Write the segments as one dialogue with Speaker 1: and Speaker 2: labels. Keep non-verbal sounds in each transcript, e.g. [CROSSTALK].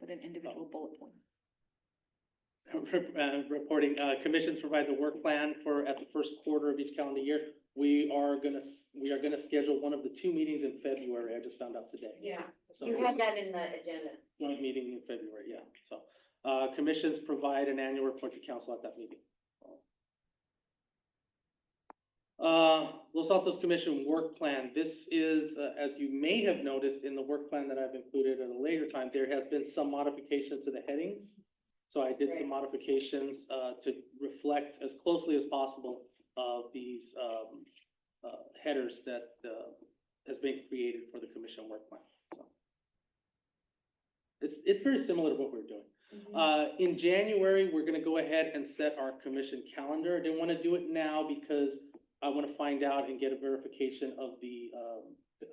Speaker 1: put an individual bullet point.
Speaker 2: uh, reporting, uh, commissions provide the work plan for, at the first quarter of each calendar year. We are gonna, s- we are gonna schedule one of the two meetings in February, I just found out today.
Speaker 3: Yeah,
Speaker 2: So
Speaker 3: you had that in the agenda.
Speaker 2: Joint meeting in February, yeah, so, uh, commissions provide an annual report to council at that meeting. Uh, Los Altos Commission Work Plan, this is, uh, as you may have noticed in the work plan that I've included at a later time, there has been some modifications to the headings. So I did some modifications, uh, to reflect as closely as possible of these, um, uh, headers that, uh, has been created for the commission work plan, so. It's, it's very similar to what we're doing.
Speaker 3: Mm-hmm.
Speaker 2: Uh, in January, we're gonna go ahead and set our commission calendar. I didn't wanna do it now because I wanna find out and get a verification of the, um,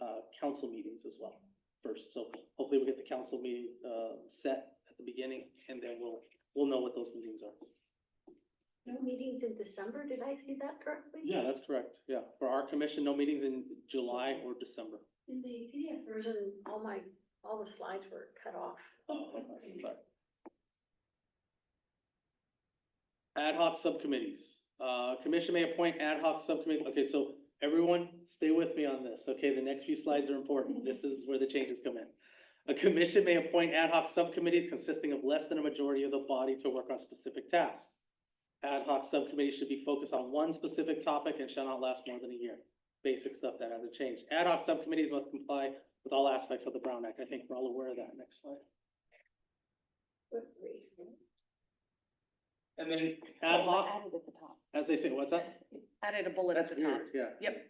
Speaker 2: uh, council meetings as well first. So hopefully we'll get the council meeting, uh, set at the beginning and then we'll, we'll know what those meetings are.
Speaker 3: No meetings in December, did I see that correctly?
Speaker 2: Yeah, that's correct. Yeah, for our commission, no meetings in July or December.
Speaker 3: In the PDF version, all my, all the slides were cut off.
Speaker 2: Oh, okay, sorry. Ad hoc subcommittees. Uh, commission may appoint ad hoc subcommittees. Okay, so everyone, stay with me on this, okay? The next few slides are important. This is where the changes come in. A commission may appoint ad hoc subcommittees consisting of less than a majority of the body to work on specific tasks. Ad hoc subcommittees should be focused on one specific topic and shall not last more than a year. Basic stuff that hasn't changed. Ad hoc subcommittees must comply with all aspects of the Brown Act. I think we're all aware of that. Next slide. And then ad hoc,
Speaker 1: Added at the top.
Speaker 2: as they say, what's that?
Speaker 1: Added a bullet at
Speaker 2: That's
Speaker 1: the top.
Speaker 2: weird, yeah. [LAUGHS]
Speaker 1: Yep.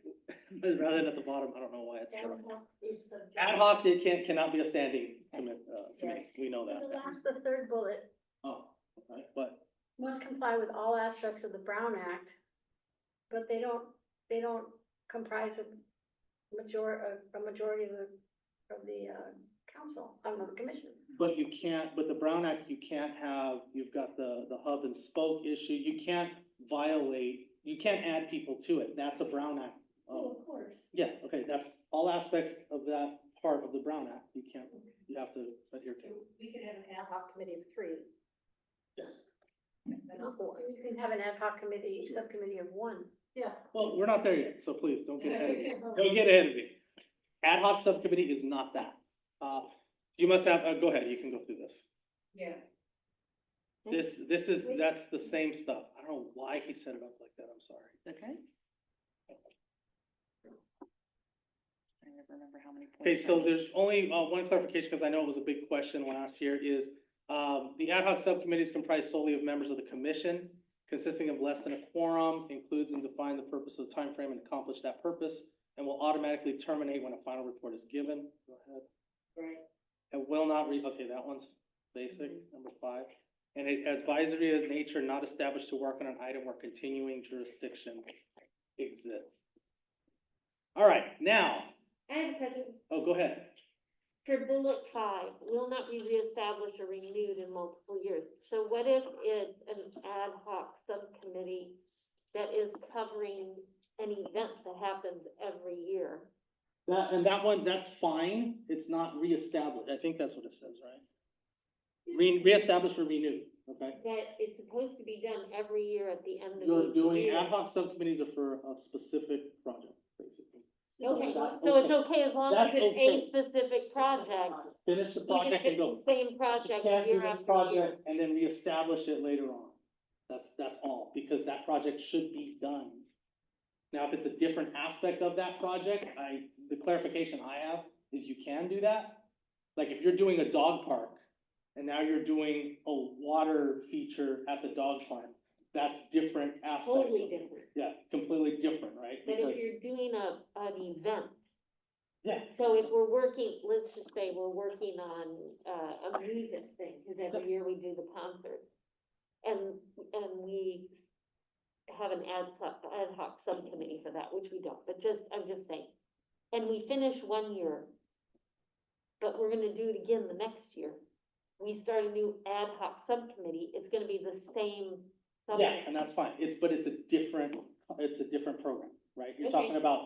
Speaker 2: Rather than at the bottom, I don't know why it's. so-
Speaker 3: Ad
Speaker 2: Ad hoc, it can't, cannot be a standing commit, uh, committee, we know
Speaker 3: The
Speaker 2: that.
Speaker 3: last, the third bullet,
Speaker 2: Oh, okay, but,
Speaker 3: must comply with all aspects of the Brown Act, but they don't, they don't comprise a major, uh, a- a majority of the, of the, uh, council, um, of the commission.
Speaker 2: but you can't, but the Brown Act, you can't have, you've got the, the hub and spoke issue, you can't violate, you can't add people to it, that's a Brown Act. um,
Speaker 3: Oh, of course.
Speaker 2: Yeah, okay, that's all aspects of that part of the Brown Act, you can't, you have to adhere to.
Speaker 3: We could have an ad hoc committee of three.
Speaker 2: Yes.
Speaker 3: You can have an ad hoc committee, subcommittee of one. Yeah.
Speaker 2: Well, we're not there yet, so please, don't get
Speaker 3: [LAUGHS]
Speaker 2: ahead of me. Don't get ahead of me. Ad hoc subcommittee is not that. Uh, you must have, uh, go ahead, you can go through this.
Speaker 3: Yeah.
Speaker 2: This, this is, that's the same stuff. I don't know why he set it up like that, I'm sorry.
Speaker 1: Okay. I never remember how many.
Speaker 2: Okay,
Speaker 1: points
Speaker 2: so
Speaker 1: I-
Speaker 2: there's only, uh, one clarification, because I know it was a big question last year, is, um, the ad hoc subcommittee is comprised solely of members of the commission, consisting of less than a quorum, includes and define the purpose of the time frame and accomplish that purpose, and will automatically terminate when a final report is given. Go ahead.
Speaker 3: Right.
Speaker 2: It will not re, okay, that one's basic, number five. And it advisory is nature not established to work on an item where continuing jurisdiction exists. All right, now,
Speaker 4: I have a question.
Speaker 2: oh, go ahead.
Speaker 4: For bullet five, will not be reestablished or renewed in multiple years. So what if it's an ad hoc subcommittee that is covering an event that happens every year?
Speaker 2: That, and that one, that's fine, it's not reestablished, I think that's what it says, right? Re, reestablished or renewed, okay?
Speaker 4: That it's supposed to be done every year at the end of each year.
Speaker 2: You're doing ad hoc subcommittees are for a specific project, basically.
Speaker 4: Okay,
Speaker 2: That's
Speaker 4: so it's okay as long as
Speaker 2: That's
Speaker 4: it's
Speaker 2: okay.
Speaker 4: a specific project,
Speaker 2: Finish the
Speaker 4: even if
Speaker 2: project and go.
Speaker 4: it's the same
Speaker 2: You
Speaker 4: project
Speaker 2: can't do
Speaker 4: year
Speaker 2: this
Speaker 4: after year.
Speaker 2: project and then reestablish it later on. That's, that's all, because that project should be done. Now, if it's a different aspect of that project, I, the clarification I have is you can do that. Like if you're doing a dog park and now you're doing a water feature at the dog park, that's different aspects. of
Speaker 4: Totally
Speaker 2: it.
Speaker 4: different.
Speaker 2: Yeah, completely different, right?
Speaker 4: But
Speaker 2: Because-
Speaker 4: if you're doing a, an event,
Speaker 2: Yeah,
Speaker 4: So if we're working, let's just say we're working on, uh, a music thing, cause every year we do the concert. And, and we have an ad hoc, ad hoc subcommittee for that, which we don't, but just, I'm just saying. And we finish one year, but we're gonna do it again the next year. We start a new ad hoc subcommittee, it's gonna be the same.
Speaker 2: yeah,
Speaker 4: subject.
Speaker 2: and that's fine. It's, but it's a different, it's a different program, right? You're
Speaker 4: Okay.
Speaker 2: talking about